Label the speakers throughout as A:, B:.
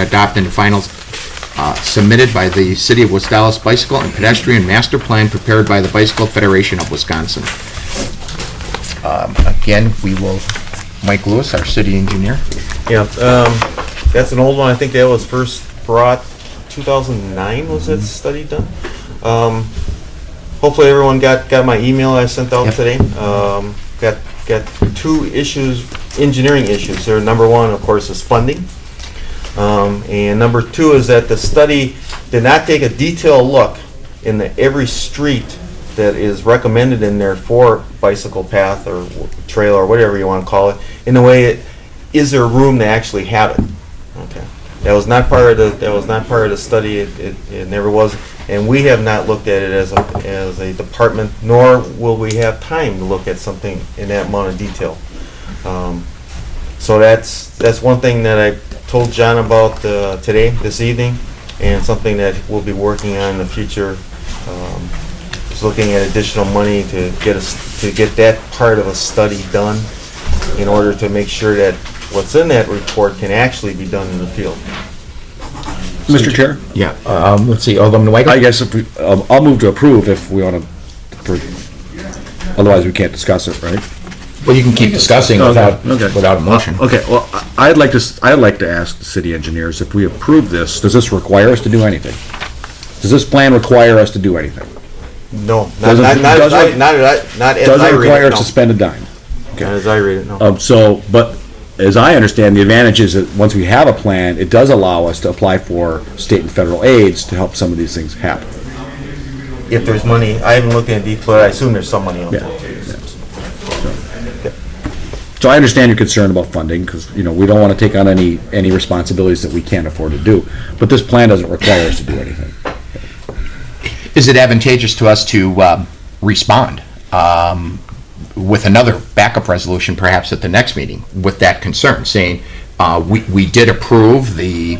A: adopt and final uh, submitted by the City of West Dallas Bicycle and Pedestrian Master Plan prepared by the Bicycle Federation of Wisconsin. Um, Again, we will, Mike Lewis, our city engineer.
B: Yeah, um, that's an old one. I think that was first brought 2009 was that study done? Um, hopefully everyone got, got my email I sent out
A: Yep.
B: today. Um, got, got two issues, engineering issues. There, number one, of course, is funding. Um, and number two is that the study did not take a detailed look in the, every street that is recommended in there for bicycle path or w- trail or whatever you want to call it, in the way, it- is there room to actually have it? Okay. That was not part of the, that was not part of the study, it, it, it never was, and we have not looked at it as a, as a department, nor will we have time to look at something in that amount of detail. Um, so that's, that's one thing that I told John about uh, today, this evening, and something that we'll be working on in the future. Um, Just looking at additional money to get us, to get that part of a study done in order to make sure that what's in that report can actually be done in the field.
C: Mr. Chair?
A: Yeah, um, let's see, Alderman Weigel?
C: I guess if we, um, I'll move to approve if we want to, otherwise we can't discuss it, right?
A: Well, you can keep discussing
C: Oh, Okay,
A: without,
C: okay.
A: without a motion.
C: Okay, well, I- I'd like to, s- I'd like to ask the city engineers, if we approve this, does this require us to do anything? Does this plan require us to do anything?
B: No, not, not,
C: Doesn't-
B: not, as I-
C: doesn't-
B: not, as I- not as I
C: Doesn't
B: read
C: require
B: it,
C: us to
B: no.
C: spend a dime.
B: Not as I read it, no.
C: Um, so, but as I understand, the advantage is that once we have a plan, it does allow us to apply for state and federal aids to help some of these things happen.
B: If there's money, I haven't looked at it, but I assume there's some money on
C: Yeah.
B: it.
C: So I understand your concern about funding, because, you know, we don't want to take on any, any responsibilities that we can't afford to do, but this plan doesn't require us to do anything.
A: Is it advantageous to us to um, respond um, with another backup resolution perhaps at the next meeting with that concern, saying, uh, we we did approve the,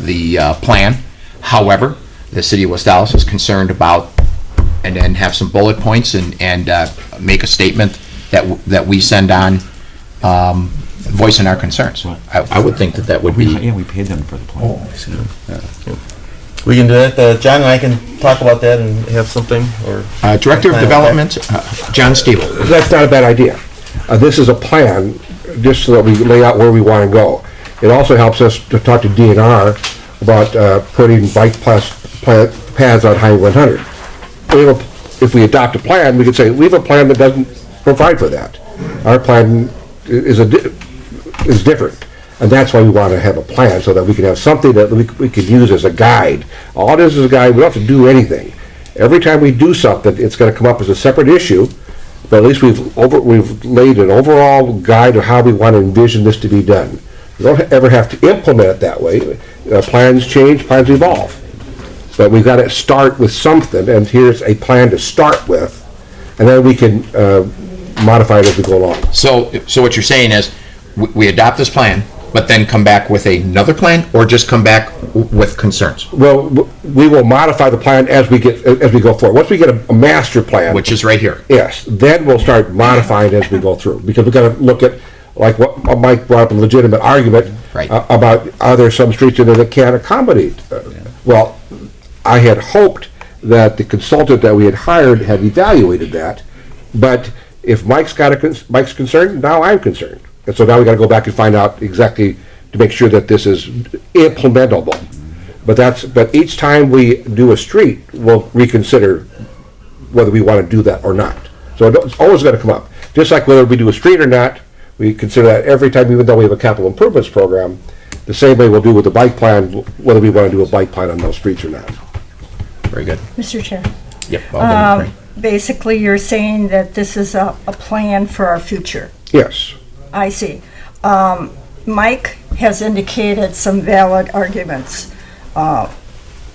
A: the uh, plan, however, the city of West Dallas is concerned about, and then have some bullet points and, and uh, make a statement that, w- that we send on, um, voicing our concerns. I I would think that that would be.
D: Yeah, we paid them for the plan.
B: We can do that, uh, John and I can talk about that and have something, or
A: Uh, Director of
B: Okay.
A: Development, uh, John Steele.
E: that's not a bad idea. Uh, this is a plan, just so that we lay out where we want to go. It also helps us to talk to DNR about uh, putting bike plus, pla- paths on Highway 100. We have a- If we adopt a plan, we could say, we have a plan that doesn't provide for that. Our plan i- is a, di- is different. And that's why we want to have a plan, so that we can have something that we, we could use as a guide. All this is a guide, we don't have to do anything. Every time we do something, it's gonna come up as a separate issue, but at least we've over, we've laid an overall guide of how we want to envision this to be done. We don't ever have to implement it that way. Uh, plans change, plans evolve. But we've got to start with something, and here's a plan to start with, and then we can, uh, modify it as we go along.
A: So, so what you're saying is, we, we adopt this plan, but then come back with another plan, or just come back w- with concerns,
E: Well, w- we will modify the plan as we get, as we go forward. Once we get a, a master plan.
A: which is right here.
E: Yes, then we'll start modifying as we go through, because we're gonna look at, like what Mike brought up, a legitimate argument.
A: Right.
E: a- About, are there some streets in there that can't accommodate? uh, Well, I had hoped that the consultant that we had hired had evaluated that, but if Mike's got a, cons- Mike's concerned, now I'm concerned. And so now we gotta go back and find out exactly, to make sure that this is implementable. But that's, but each time we do a street, we'll reconsider whether we want to do that or not. So it's always going to come up. Just like whether we do a street or not, we consider that every time, even though we have a capital improvements program, the same way we'll do with the bike plan, whether we want to do a bike plan on those streets or not.
A: Very good.
F: Mr. Chair,
A: Yep. all
F: Um,
A: done. Great.
F: basically, you're saying that this is a, a plan for our future.
E: Yes.
F: I see. Um, Mike has indicated some valid arguments uh,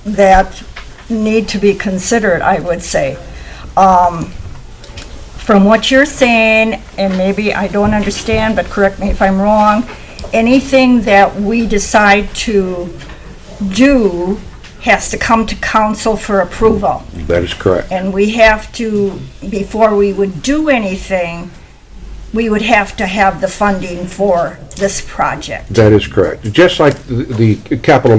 F: that need to be considered, I would say. Um, From what you're saying, and maybe I don't understand, but correct me if I'm wrong, anything that we decide to do has to come to council for approval.
E: That is correct.
F: And we have to, before we would do anything, we would have to have the funding for this project.
E: That is correct. Just like the the capital